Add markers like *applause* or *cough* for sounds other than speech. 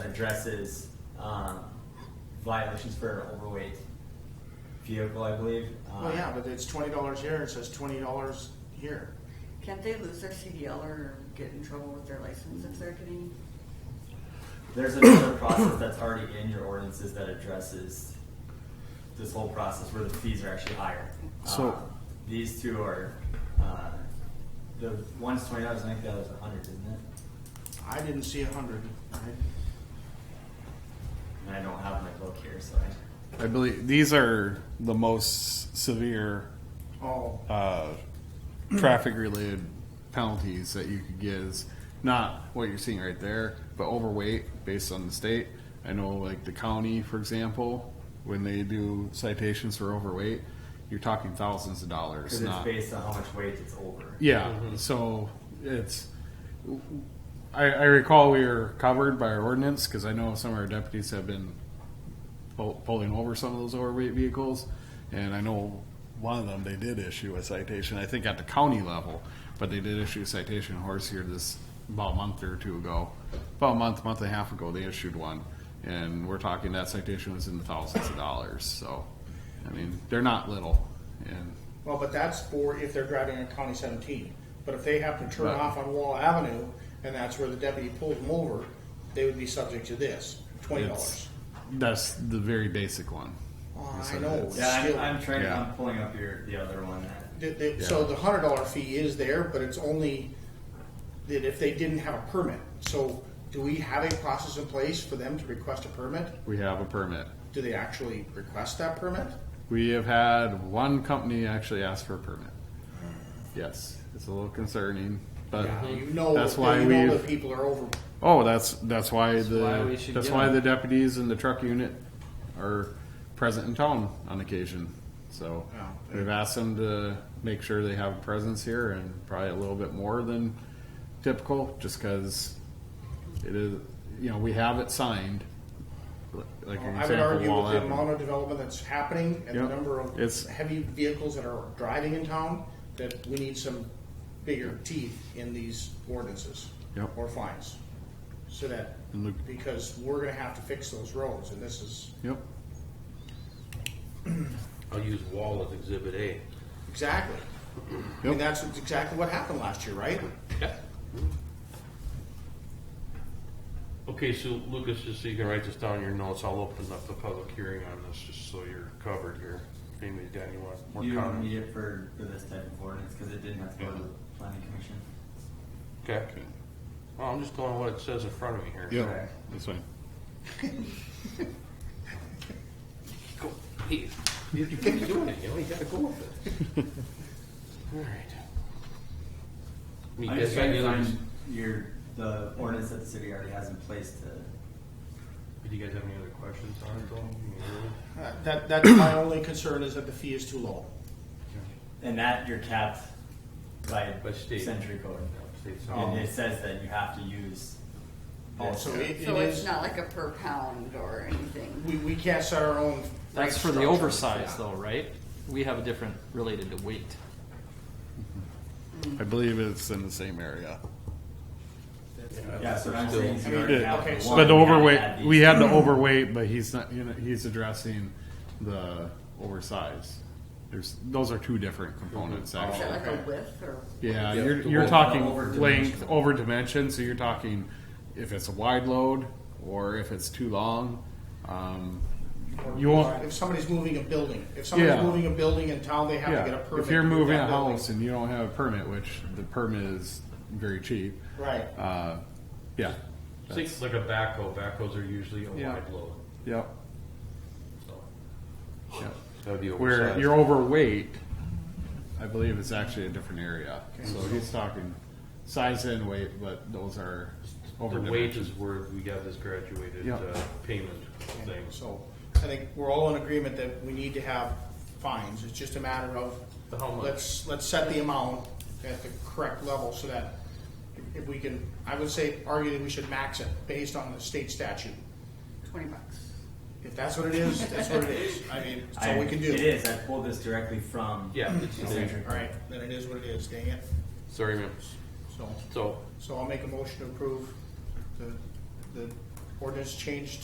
addresses um, violations for an overweight vehicle, I believe. Um, Well, Oh, yeah, but it's twenty dollars here, it says twenty dollars here. Can't they lose their CDL or get in trouble with their license if they're getting? There's another *coughs* process that's already in your ordinances that addresses this whole process where the fees are actually higher. So- Um, These two are, uh, the one's twenty dollars, I think the other's a hundred, isn't it? I didn't see a hundred. And I don't have my book here, so I, I believe these are the most severe Oh, uh, traffic related penalties that you could get is not what you're seeing right there, but overweight based on the state. I know, like the county, for example, when they do citations for overweight, you're talking thousands of dollars. cause it's Not, based on how much weight it's over. yeah, so it's. I, I recall we were covered by our ordinance because I know some of our deputies have been pull, pulling over some of those overweight vehicles, and I know one of them they did issue a citation. I think at the county level, but they did issue a citation horse here this about a month or two ago, about a month, month and a half ago they issued one, and we're talking that citation was in the thousands of dollars. So, I mean, they're not little, and well, but that's for if they're driving on County seventeen. But if they happen to turn Right. off on Wall Avenue, and that's where the deputy pulled them over, they would be subject to this, twenty dollars. It's- That's the very basic one. Oh, So I know. that's- Yeah, I'm, Still- I'm trying, Yeah. I'm pulling up your, the other one that. The, the, So Yeah. the hundred dollar fee is there, but it's only that if they didn't have a permit. So do we have a process in place for them to request a permit? We have a permit. Do they actually request that permit? We have had one company actually ask for a permit. Yes, it's a little concerning, but Yeah, you know, that's that- why you we. know that people are over. Oh, that's that's why the why we should that's get why them. the deputies and the truck unit are present in town on occasion. So Yeah. we've asked them to make sure they have a presence here and probably a little bit more than typical, just because it is. You know, we have it signed. Like an I would example, argue Wall with the Avenue. amount of development that's happening and the Yep. number of It's- heavy vehicles that are driving in town, that we need some bigger teeth in these ordinances. Yep. Or fines. So that, And Luke- because we're gonna have to fix those roads and this is, Yep. I'll use wall as exhibit A. exactly. I mean, Yep. that's exactly what happened last year, right? Okay, so Lucas, just so you can write this down in your notes, I'll open up the public hearing on this, just so you're covered here. Amy, Dan, you want You more don't comments? need it for, for this type of ordinance, cause it didn't have to go to the planning commission. Okay. Well, I'm just going what it says in front of me here. Yep. That's fine. Go, hey, you you keep doing it, you know, you gotta go with it. *laughs* All right. I mean, I'm you guys just got trying any to others? find your, the ordinance that the city already has in place to, Do you guys have any other questions on it though? I mean, really? Uh, That, that's *clears throat* my only concern is that the fee is too low. and that you're capped by By state. Oh. century code. States And all- it says that you have to use. Oh, this. so it it So it's is, not like a per pound or anything. we, we can't set our own. That's rate for the structure. oversize Yeah. though, right? We have a different related to weight. I believe it's in the same area. Yeah, so I'm Still- saying. you I mean, already yeah, have okay, the so- one, But the you gotta add overweight, these. we had the overweight, but he's not, you know, he's addressing the oversize. There's, those are two different Oh. components Is that actually. like a width or? Yeah, Yeah, you're, the you're over- talking over-dimensional. length, over dimension, so you're talking if it's a wide load or if it's too long. Um, You won't, If somebody's moving a building, if somebody's Yeah. moving a building in town, they have to get a yeah, permit. if you're to move moving that a building. house and you don't have a permit, which the permit is very cheap, Right, uh, yeah. Think like a backhoe, backhoes are usually a Yeah. wide load, Yep, so. yep. That'd be Where oversized. you're overweight, I believe it's actually a different area. So he's talking size and weight, but those are over The dimension. wages were, we got this graduated Yeah. uh, payment thing. so I think we're all in agreement that we need to have fines, it's just a matter of. But how much? Let's, let's set the amount at the correct level so that if we can, I would say argue that we should max it based on the state statute. Twenty bucks. If that's what it is, that's what it is, I mean, that's all I- we can do. It is, I pulled this directly from. Yeah, it's the the same. century code. Alright, then it is what it is, dang it, Sorry, ma'am. so. So, So I'll make a motion to approve the, the ordinance change